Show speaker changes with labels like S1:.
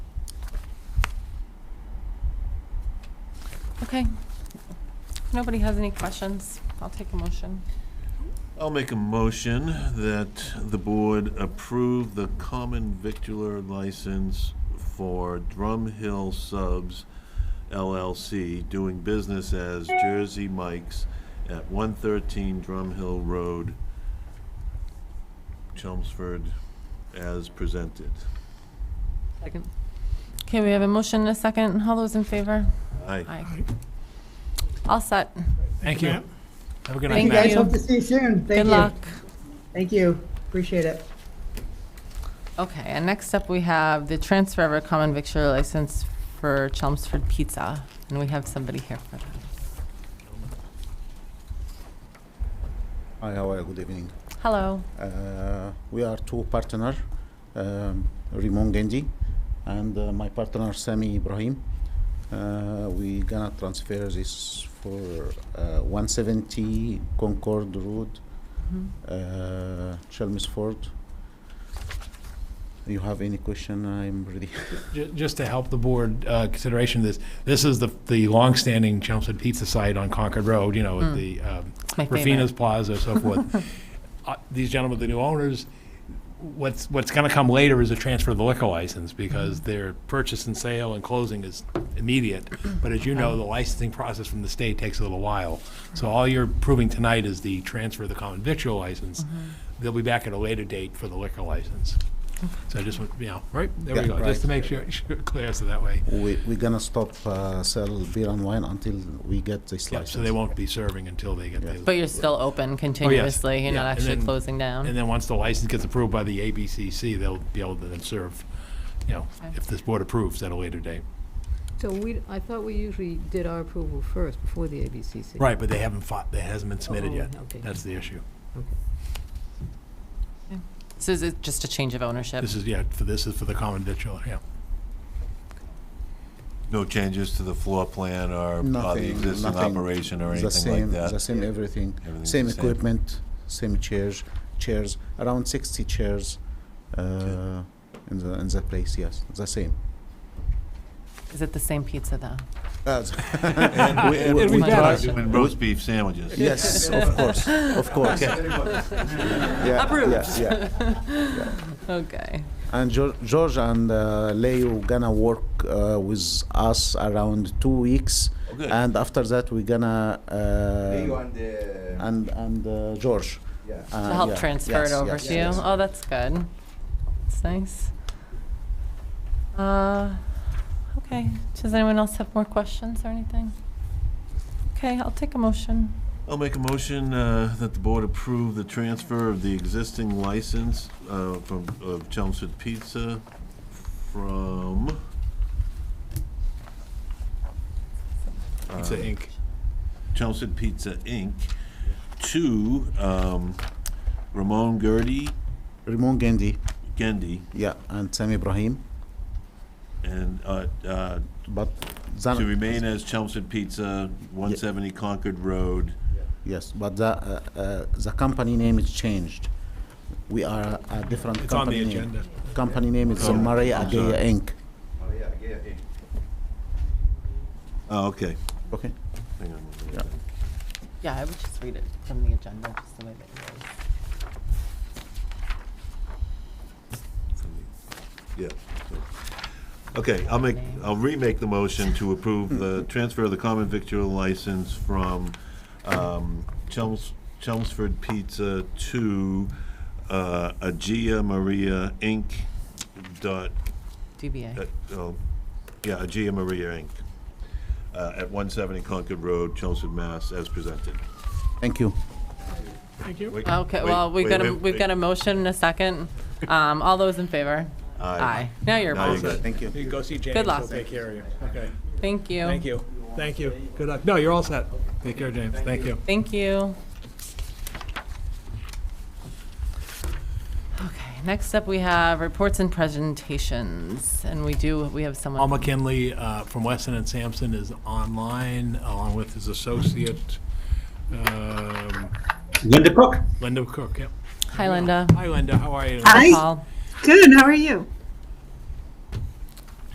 S1: Okay. If nobody has any questions, I'll take a motion.
S2: I'll make a motion that the board approve the common victular license for Drumhill Subs LLC, doing business as Jersey Mike's at 113 Drumhill Road, Chelmsford, as presented.
S3: Second.
S1: Okay, we have a motion and a second. All those in favor?
S2: Aye.
S1: Aye. All set.
S4: Thank you. Have a good night,
S1: Thank
S4: Matt.
S5: guys.
S1: you.
S5: Hope to see you soon.
S1: Good
S5: Thank you.
S1: luck.
S5: Thank you. Appreciate it.
S1: Okay, and next up, we have the transfer of a common victular license for Chelmsford Pizza, and we have somebody here for that.
S6: Hi, how are you? Good evening.
S1: Hello.
S6: Uh, we are two partner, um, Rimon Genji and uh, my partner Sami Ibrahim. Uh, we gonna transfer this for uh, 170 Concord Road,
S4: Mm-hmm.
S6: uh, Chelmsford. You have any question? I'm ready.
S4: Ju- Just to help the board, uh, consideration of this, this is the, the longstanding Chelmsford Pizza site on Concord Road, you know, with the, um,
S1: Hmm. It's my
S4: Rafina's
S1: favorite.
S4: Plaza, so forth. Uh, These gentlemen, the new owners, what's, what's going to come later is a transfer of the liquor license, because
S1: Hmm.
S4: their purchase and sale and closing is immediate. But as you know, the licensing process from the state takes a little while. So all you're proving tonight is the transfer of the common victual license.
S1: Mm-hmm.
S4: They'll be back at a later date for the liquor license. So I just want, you know, right, there we
S6: Yeah,
S4: go, just to
S6: right.
S4: make sure, sure it clears so that way.
S6: We we gonna stop uh, sell beer and wine until we get this
S4: Yeah,
S6: license.
S4: so they won't be serving until they get
S6: Yeah.
S4: the.
S1: But you're still open continuously. You're
S4: Oh, Yeah,
S1: not
S4: and
S1: actually
S4: then-
S1: closing
S4: And
S1: down.
S4: then once the license gets approved by the ABCC, they'll be able to then serve, you know, if this board approves at a later date.
S3: So we, I thought we usually did our approval first before the ABCC.
S4: Right, but they haven't fought, that hasn't been submitted
S3: Oh,
S4: yet.
S3: okay.
S4: That's the issue.
S1: So is it just a change of ownership?
S4: This is, yeah, for this is for the common victual, yeah.
S2: No changes to the floor plan or uh, the
S6: Nothing-
S2: existing
S6: nothing.
S2: operation or
S6: the
S2: anything
S6: same,
S2: like that?
S6: the same everything,
S2: Everything's
S6: same
S2: the same.
S6: equipment, same chairs, chairs around sixty chairs, uh, in the in the place. Yes, the same.
S1: Is it the same pizza, though?
S6: Uh,
S2: And-
S6: we-
S2: and
S6: we-
S1: we
S6: we
S1: better.
S6: try-
S1: Yes.
S2: And roast beef sandwiches?
S6: Yes, of course, of course. Yeah,
S1: Approved.
S6: Yeah, yeah.
S1: Okay.
S6: And Geor- George and uh, Leo gonna work uh, with us around two weeks,
S2: Oh, good.
S6: and after that we gonna uh,
S7: Leo and uh,
S6: and and uh, George.
S7: yeah.
S6: Uh,
S1: To help
S6: yeah,
S1: transfer it
S6: yes,
S1: over
S6: yes,
S1: to you?
S6: yes.
S1: Oh, that's good. That's nice. Uh, Okay, does anyone else have more questions or anything? Okay, I'll take a motion.
S2: I'll make a motion uh, that the board approve the transfer of the existing license uh, from, of Chelmsford Pizza from...
S4: Pizza
S2: uh,
S4: Inc.
S2: Chelmsford Pizza, Inc., to um, Ramon Gertie,
S6: Ramon Gandhi,
S2: Gendy,
S6: yeah, and Sam Ibrahim.
S2: and uh, uh,
S6: But
S2: to
S6: then,
S2: remain as Chelmsford Pizza, 170 Concord Road.
S6: yes, but the, uh, uh, the company name is changed. We are a different
S4: It's on the
S6: company name.
S4: agenda.
S6: Company name is
S2: Oh,
S6: Maria
S2: I'm
S6: Agaya
S2: sorry.
S6: Inc.
S7: Maria, yeah, yeah.
S2: Oh, okay.
S6: Okay.
S2: Hang on.
S6: Yeah.
S1: Yeah, I would just read it from the agenda, just the way that it is.
S2: Yeah. Okay, I'll make, I'll remake the motion to approve the transfer of the common victual license from um, Chelms Chelmsford Pizza to uh, Agia Maria Inc. dot, uh,
S1: DBA.
S2: oh, yeah, Agia Maria Inc. uh, at 170 Concord Road, Chelmsford, Mass., as presented.
S6: Thank you.
S2: Wait,
S1: Oh, Okay,
S2: wait,
S1: well, we've
S2: wait,
S1: got a,
S2: wait,
S1: we've got a motion and a second. Um, All those in favor?
S2: Aye.
S1: Now you're
S2: Now you're
S1: both.
S2: good.
S6: Thank you.
S8: You can go see James.
S1: Good luck.
S8: He'll take care of you. Okay.
S1: Thank you.
S8: Thank you. Thank you. Good luck. No, you're all set.
S4: Take care, James. Thank you.
S1: Thank you. Okay, next up, we have reports and presentations, and we do, we have
S4: Paul
S1: someone.
S4: McKinley uh, from Weston and Sampson is online, along with his associate, um,
S9: Linda Cook.
S4: Linda Cook, yep.
S1: Hi, Linda.
S4: Hi, Linda, how are you?
S1: Hi,
S9: Hi.
S1: Paul.
S9: Good, how are you?